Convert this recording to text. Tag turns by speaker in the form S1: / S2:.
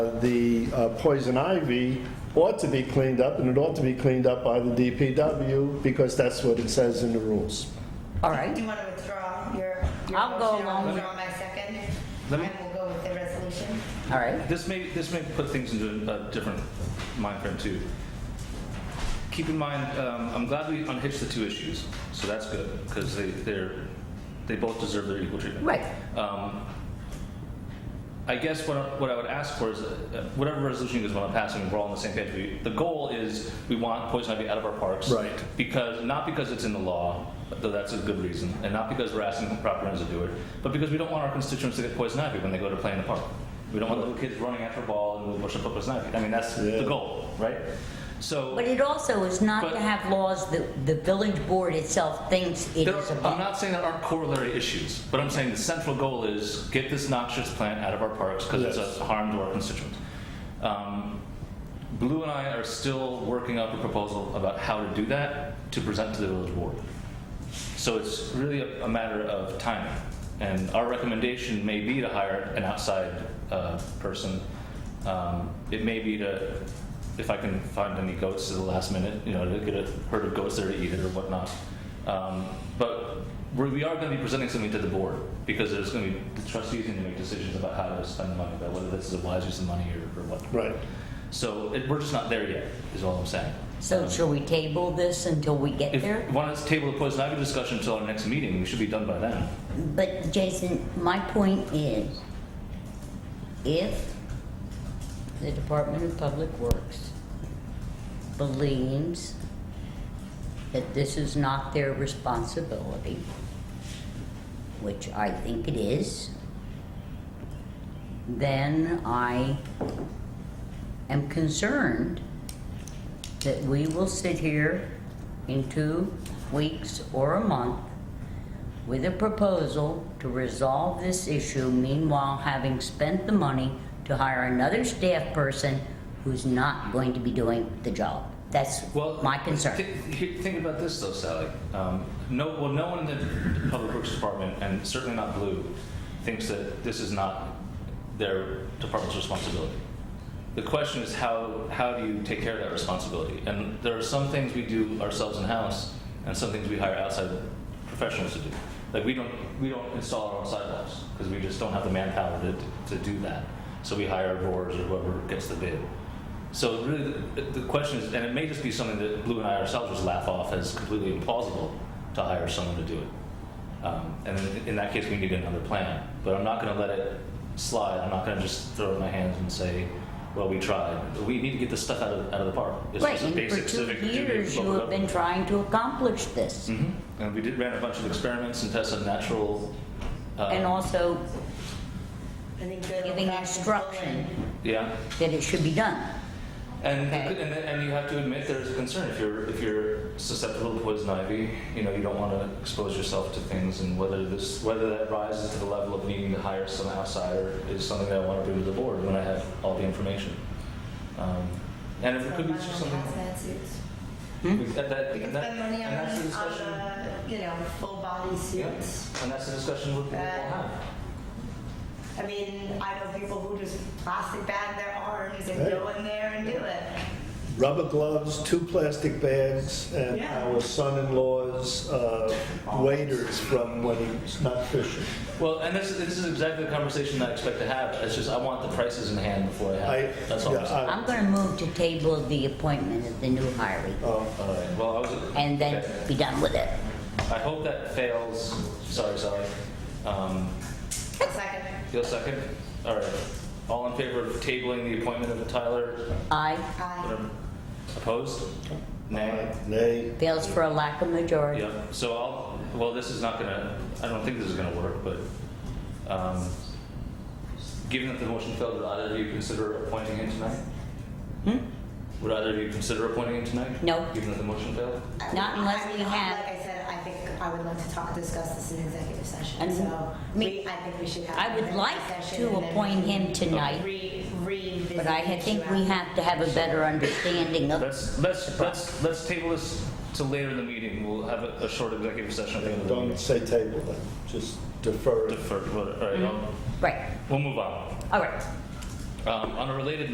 S1: The uh, poison ivy ought to be cleaned up, and it ought to be cleaned up by the DPW, because that's what it says in the rules.
S2: All
S3: Do
S2: right.
S3: you want to withdraw your, your
S2: I'll go
S3: motion?
S2: along with-
S3: I'll withdraw my second,
S4: Let me-
S3: and we'll go with the resolution.
S2: All right.
S4: This may, this may put things into a different mind frame too. Keep in mind, um, I'm glad we unhitched the two issues, so that's good, because they, they're, they both deserve their equal treatment.
S2: Right.
S4: Um, I guess what, I- what I would ask for is, uh, whatever resolution you guys want to pass, and we're all on the same page, we, the goal is, we want poison ivy out of our parks.
S1: Right.
S4: Because, not because it's in the law, though that's a good reason, and not because we're asking the proper owners to do it, but because we don't want our constituents to get poison ivy when they go to play in the park. We don't want little kids running after a ball and we'll push up poison ivy. I mean, that's
S1: Yeah.
S4: the goal, right? So.
S2: But it also is not to
S4: But-
S2: have laws that the village board itself thinks it
S4: There-
S2: is
S4: I'm
S2: above.
S4: not saying there aren't corollary issues, but I'm saying the central goal is get this noxious plant out of our parks because
S1: Yes.
S4: it's a harm to our constituents. Um, Blue and I are still working up a proposal about how to do that to present to the village board. So it's really a, a matter of timing. And our recommendation may be to hire an outside uh, person. Um, it may be to, if I can find any goats at the last minute, you know, to get a herd of goats there to eat it or whatnot. Um, but we're, we are going to be presenting something to the board because there's going to be the trustees need to make decisions about how to spend money, about whether this is a wise use of money or, or what.
S1: Right.
S4: So it, we're just not there yet, is all I'm saying.
S2: So
S4: Um,
S2: shall we table this until we get
S4: if
S2: there?
S4: one is table the poison ivy discussion until our next meeting, we should be done by then.
S2: But Jason, my point is, if the Department of Public Works believes that this is not their responsibility, which I think it is, then I am concerned that we will sit here in two weeks or a month with a proposal to resolve this issue, meanwhile having spent the money to hire another staff person who's not going to be doing the job. That's
S4: Well,
S2: my concern.
S4: thi- he- think about this though, Sally. Um, no, well, no one in the public works department, and certainly not Blue, thinks that this is not their department's responsibility. The question is how how do you take care of that responsibility? And there are some things we do ourselves in house, and some things we hire outside professionals to do. Like we don't we don't install our own sidewalks because we just don't have the manpower to, to do that. So we hire boards or whoever gets the bid. So really, the, the question is, and it may just be something that Blue and I ourselves just laugh off as completely implausible to hire someone to do it. Um, and in, in that case, we need another plan. But I'm not going to let it slide. I'm not going to just throw it in my hands and say, "Well, we tried." We need to get this stuff out of out of the park. It's
S2: Right,
S4: just a
S2: and for
S4: basic
S2: two
S4: civic duty of
S2: years, you
S4: local
S2: have been
S4: government.
S2: trying to accomplish this.
S4: Mhm. And we did ran a bunch of experiments and tested natural. Uh,
S2: And also
S3: I think good
S2: giving
S3: old-fashioned
S2: instruction
S3: bullying.
S4: yeah.
S2: that it should be done.
S4: And,
S2: Okay.
S4: and and you have to admit there's a concern if you're if you're susceptible to poison ivy, you know you don't want to expose yourself to things, and whether this whether that rises to the level of needing to hire some outsider is something that I want to bring to the board when I have all the information. Um, and if it could be just
S3: Spend money on
S4: something
S3: hazmat suits.
S2: Hmm?
S4: we- that, that,
S3: We can
S4: and that
S3: spend money on, uh,
S4: and that's the
S3: on
S4: discussion.
S3: the, you know, full body
S4: yeah,
S3: suits.
S4: and that's the discussion we'll, we'll
S3: Uh,
S4: have.
S3: I mean, I know people who just plastic bag their arms and
S1: Hey.
S3: go in there and do it.
S1: Rubber gloves, two plastic bags, and
S3: Yeah.
S1: our son-in-law's uh, waders from when he was not fishing.
S4: Well, and this, this is exactly the conversation that I expect to have. It's just I want the prices in hand before I have.
S1: I,
S4: it. that's all. I'm saying.
S1: yeah,
S2: I'm gonna move to table the appointment of the new hiree
S1: I, um,
S4: all right. Well, I was.
S2: and then
S4: okay.
S2: be done with it.
S4: I hope that fails. Sorry, sorry. Um,
S3: Second,
S4: you'll second? All right. All in favor of tabling the appointment of Tyler?
S2: Aye,
S3: aye.
S4: Opposed?
S1: Uh,
S4: Nay?
S1: Nay,
S2: fails for a lack of majority.
S4: Yep. So I'll, well, this is not gonna, I don't think this is gonna work, but, um, given that the motion failed, would either of you consider appointing him tonight?
S2: Hmm?
S4: Would either of you consider appointing him tonight?
S2: No.
S4: Given that the motion failed?
S2: Not unless
S3: I
S2: we
S3: mean,
S2: have-
S3: Like I said, I think I would like to talk, discuss this in executive session,
S2: And
S3: so
S2: me-
S3: we, I think we should have.
S2: I
S3: an
S2: would
S3: executive
S2: like
S3: session
S2: to
S3: and then
S2: appoint him tonight,
S3: Re, revisit.
S2: but I
S3: the
S2: ha- think
S3: issue
S2: we
S3: after.
S2: have to have a better understanding of,
S4: Let's, let's, let's, let's table this to later in the meeting. We'll have a, a short executive session at the end of the
S1: don't
S4: meeting.
S1: say table it, just defer it.
S4: Defer, all right, I'll-
S2: right,
S4: We'll move on.
S2: all right.
S4: Um, On a related